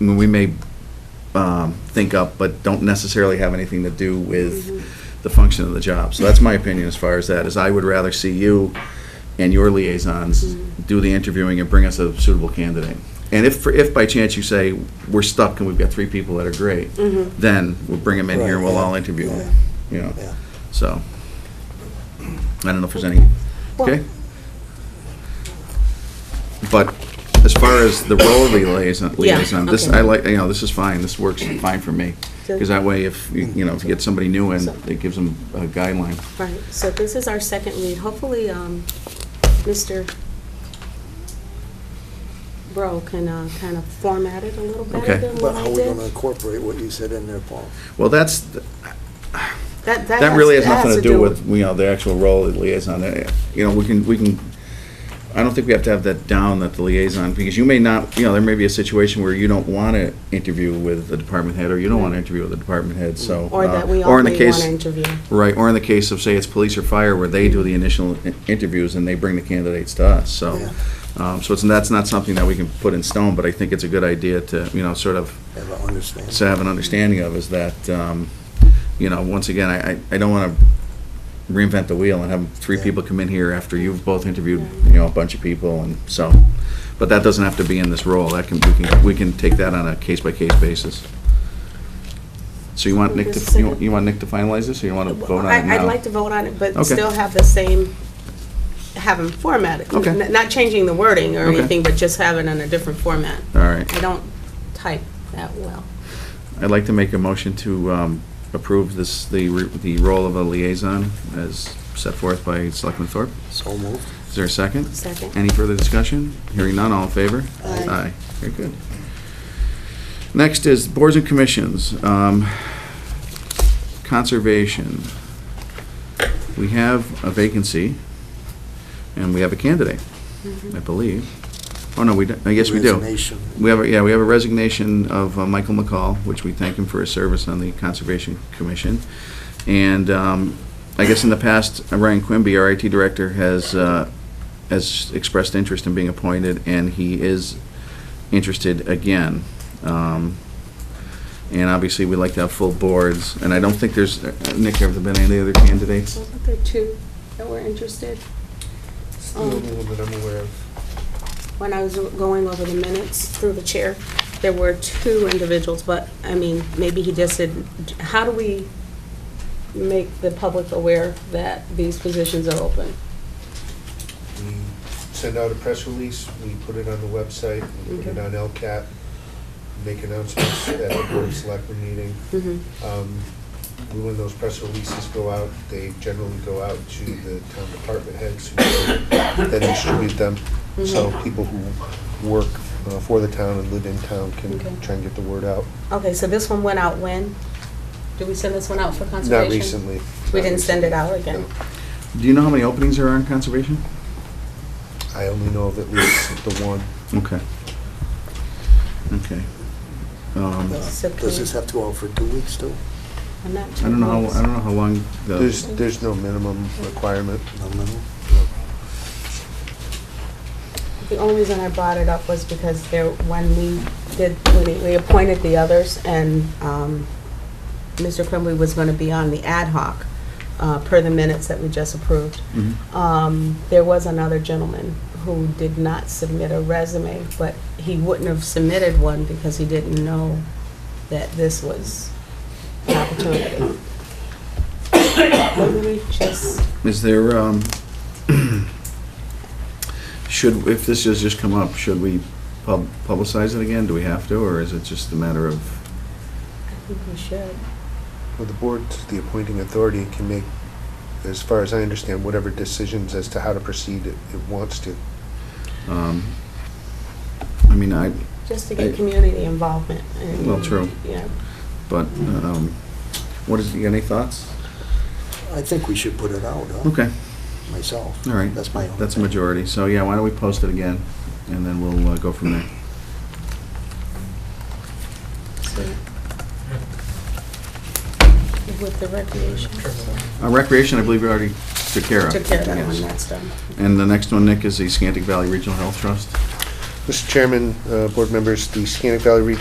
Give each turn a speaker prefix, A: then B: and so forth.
A: I mean, we may um, think up, but don't necessarily have anything to do with the function of the job. So that's my opinion as far as that, is I would rather see you and your liaisons do the interviewing and bring us a suitable candidate. And if, if by chance you say, we're stuck and we've got three people that are great, then we'll bring them in here and we'll all interview them, you know?
B: Yeah.
A: So, I don't know if there's any, okay? But as far as the role of the liaison,
C: Yeah,
A: liaison, this,
C: okay.
A: I like, you know, this is fine, this works fine for me. Because that way, if, you you know, if you get somebody new in,
C: So-
A: it gives them a guideline.
C: Right, so this is our second read. Hopefully, um, Mr. Bro can uh, kind of format it a little better
A: Okay.
C: than
B: But
C: what
B: how
C: I
B: are we gonna
C: did.
B: incorporate what you said in there, Paul?
A: Well, that's,
C: That
A: that really has
C: that
A: nothing to do with, you know, the actual role of the liaison. Uh, You know, we can, we can, I don't think we have to have that down, that the liaison, because you may not, you know, there may be a situation where you don't want to interview with the department head, or you don't want to interview with the department head, so.
C: Mm-hmm. Or
A: uh,
C: that we
A: or in the
C: only want
A: case-
C: to interview.
A: Right, or in the case of, say, it's police or fire, where they do the initial i- interviews and they bring the candidates to us, so. um, So it's, that's not something that we can put in stone, but I think it's a good idea to, you know, sort of
B: Have I understand?
A: to have an understanding of is that, um, you know, once again, I, I- I don't want to reinvent the wheel and have three
B: Yeah.
A: people come in here after you've both interviewed, you know, a bunch of people and so. But that doesn't have to be in this role. That can, we can, we can take that on a case-by-case basis. So you want Nick to, you want- you want Nick to finalize this or you want to vote on
C: I-
A: it now?
C: I'd like to vote on it, but
A: Okay.
C: still have the same, have them formatted.
A: Okay.
C: N- Not changing the wording or
A: Okay.
C: anything, but just have it in a different format.
A: All right.
C: I don't type that well.
A: I'd like to make a motion to um, approve this, the, re- the role of a liaison as set forth by Selectman Thorpe.
B: So moved.
A: Is there a second?
C: Second.
A: Any further discussion? Hearing none, all in favor?
C: Aye.
A: Very good. Next is boards and commissions. Um, Conservation. We have a vacancy, and we have a candidate, I believe. Oh, no, we, don't- I guess we do.
B: Resignation.
A: We have, a yeah, we have a resignation of uh, Michael McCall, which we thank him for his service on the Conservation Commission. And um, I guess in the past, uh, Ryan Quimby, our IT director, has, uh, has expressed interest in being appointed, and he is interested again. Um, And obviously, we like to have full boards, and I don't think there's, uh, Nick, have there been any other candidates?
C: Wasn't there two that were interested? Um,
D: Still a little bit unaware of.
C: when I was going over the minutes through the chair, there were two individuals, but, I mean, maybe he just said, how do we make the public aware that these positions are open?
D: We send out a press release, we put it on the website, we put it on LCAT, make announcements at the board of selectmen meeting. Um, we- When those press releases go out, they generally go out to the town department heads who then distribute them.
C: Mm-hmm.
D: So people who work uh, for the town and live in town can
C: Okay.
D: try and get the word out.
C: Okay, so this one went out when? Did we send this one out for
D: Not
C: conservation?
D: recently.
C: We
D: not
C: didn't send it
D: recently,
C: out again?
D: no.
A: Do you know how many openings there are on Conservation?
D: I only know of at least the one.
A: Okay. Okay. Um,
B: Uh,
C: So can
B: Does
C: we-
B: this have to go out for two weeks too?
C: I'm not
A: I
C: sure.
A: don't know, how- I don't know how long the...
D: There's, there's no minimum requirement.
B: No, no, no.
C: The only reason I brought it up was because there, when we did, when we appointed the others, and um, Mr. Quimby was going to be on the ad hoc, uh, per the minutes that we just approved.
A: Mhm.
C: Um, There was another gentleman who did not submit a resume, but he wouldn't have submitted one because he didn't know that this was an opportunity. Maybe we just,
A: Is there, um, should, if this has just come up, should we pub- publicize it again? Do we have to, or is it just a matter of,
C: I think we should.
D: Well, the board's the appointing authority and can make, as far as I understand, whatever decisions as to how to proceed it it wants to.
A: um, I mean, I,
C: Just to
A: I-
C: get community involvement. and,
A: Well, true.
C: Yeah.
A: but, um, what is, you got any thoughts?
B: I think we should put it out, huh,
A: Okay,
B: myself.
A: all right.
B: That's my own.
A: That's a majority, so yeah, why don't we post it again, and then we'll uh, go from there.
C: So- With the recreation.
A: Uh, Recreation, I believe we already took care of.
C: Took care of that
A: Yes.
C: one, that's done.
A: And the next one, Nick, is the Scantic Valley Regional Health Trust.
D: Mr. Chairman, uh, board members, the Scannick Valley Regional